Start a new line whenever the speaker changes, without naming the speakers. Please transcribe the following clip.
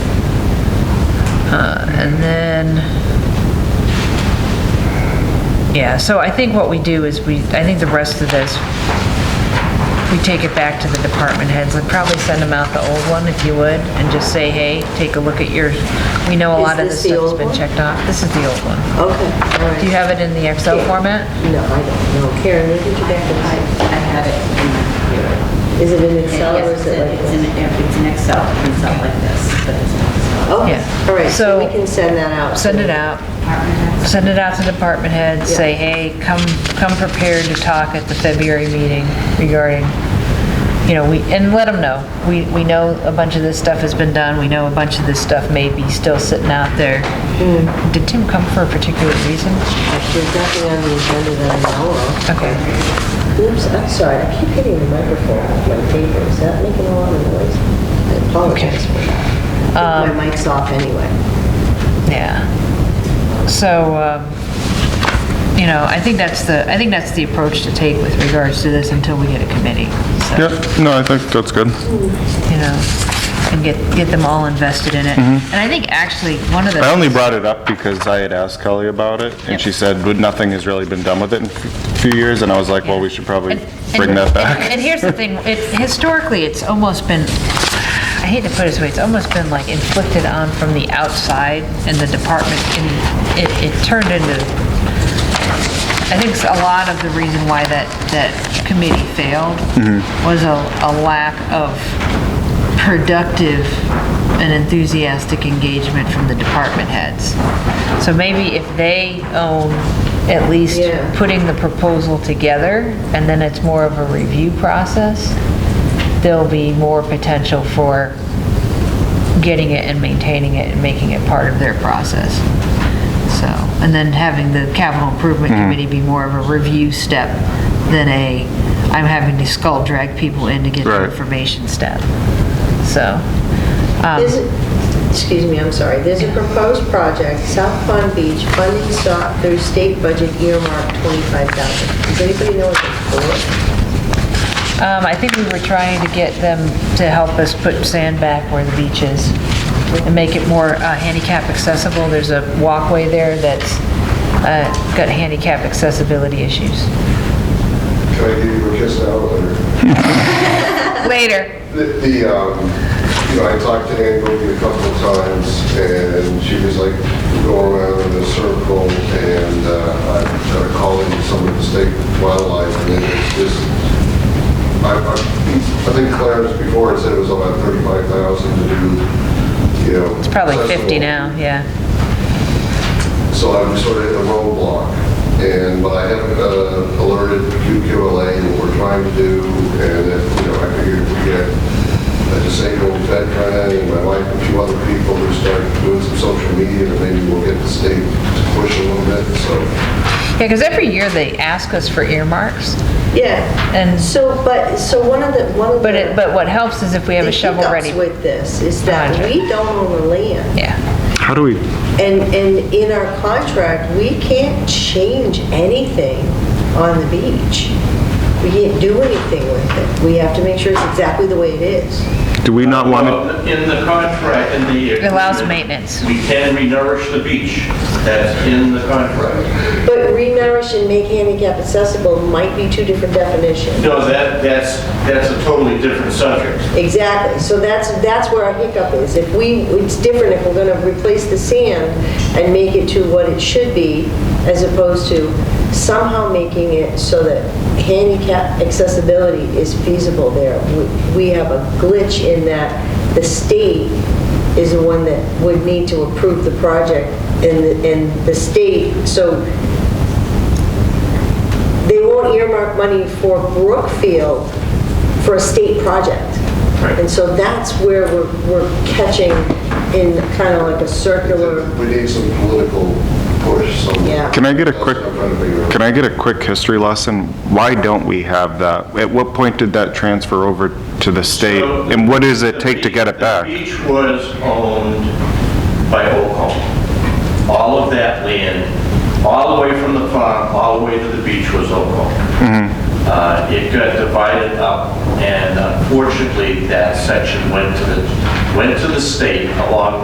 Uh, And then, yeah, so I think what we do is we, I think the rest of this, we take it back to the department heads and probably send them out the old one if you would, and just say, hey, take a look at your, we know a
Is
lot of
this
this
the
stuff's
old
been
one?
checked off. This is the old one.
Okay, all right.
Do you have it in the Excel
Yeah.
format?
No, I don't know. Karen, where did you get
I
this?
I had it in my computer.
Is it in Excel or is it like
It's
this?
in, it's in Excel, it's not like this, but it's in Excel.
Okay,
Yeah.
all right, so we
So-
can send that out.
Send it out.
Department heads.
send it out to department heads,
Yeah.
say, hey, come, come prepared to talk at the February meeting regarding, you know, we, and let them know. We, we know a bunch of this stuff has been done, we know a bunch of this stuff may be still sitting out there. Did Tim come for a particular reason?
There's nothing on the agenda that I know of.
Okay,
Oops, I'm sorry, I keep hitting the microphone with my paper. Is that making a lot of noise? I apologize for that. I think My mic's off anyway.
yeah. So, um, you know, I think that's the, I think that's the approach to take with regards to this until we get a committee. So,
Yep, no, I think that's good.
You know, and get, get them all invested in it. And I think actually, one of the.
Mm-hmm. I only brought it up because I had asked Kelly about it, and she said, "But nothing has really been done with it in a few years," and I was like, well, we should probably
And-
bring
and-
that
And
back.
and here's the thing, it, historically, it's almost been, I hate to put it this way, it's almost been like inflicted on from the outside and the department, and it, it turned into, I think a lot of the reason why that, that committee failed
Mm-hmm.
was a, a lack of productive and enthusiastic engagement from the department heads. So maybe if they own at least
Yeah.
putting the proposal together, and then it's more of a review process, there'll be more potential for getting it and maintaining it and making it part of their process. So, and then having the capital improvement committee be more of a review step than a, I'm having to skull drag people in to get the
Right.
information step. So, um,
There's, a- excuse me, I'm sorry, there's a proposed project, South Palm Beach, funding sought through state budget earmark 25,000. Does anybody know what it's for?
um, I think we were trying to get them to help us put sand back where the beach is and make it more uh, handicap accessible. There's a walkway there that's uh, got handicap accessibility issues.
Can I give you a kiss now? or-
Later.
The, the, um, you know, I talked to Ann Goby a couple of times, and she was like going around in a circle, and uh, I got a call in some of the state wildlife, and it's just, I, I I think Clarence before had said it was about 35,000 to do, you know.
It's probably 50
accessible.
now, yeah.
So I'm sort of at a roadblock, and, but I have uh, alerted QQLA and what we're trying to do, and if, you know, I figured we get a disabled veteran and my wife and a few other people who start doing some social media, and maybe we'll get the state to push a little bit, so.
Yeah, because every year they ask us for earmarks,
Yeah,
and,
so, but, so one of the, one of the...
but it, but what helps is if we have a
the
shovel
hiccups
ready.
with this is that
Project.
we don't own the land.
Yeah,
How do we,
And, and in our contract, we can't change anything on the beach. We can't do anything with it. We have to make sure it's exactly the way it is.
do we not want to,
Well, In the contract, in the...
It allows
agreement,
maintenance.
We can renourish the beach. That's in the contract.
But renourish and make handicap accessible might be two different definitions.
No, that, that's, that's a totally different subject.
Exactly, so that's, that's where our hiccup is. If we, it's different if we're gonna replace the sand and make it to what it should be, as opposed to somehow making it so that handicap accessibility is feasible there. We- We have a glitch in that the state is the one that would need to approve the project, and, the- and the state, so they won't earmark money for Brookfield for a state project.
Right.
And so that's where we're, we're catching in kind of like a circular,
We need some political push, so.
Yeah.
can I get a
That's
quick,
what I'm trying to figure out.
can I get a quick history lesson? Why don't we have that? At what point did that transfer over to the state?
So-
And what does it take to get it
The
back?
beach was owned by Oak Home. All of that land, all the way from the farm, all the way to the beach was Oak Home.
Mm-hmm.
Uh, It got divided up, and unfortunately, that section went to the, went to the state along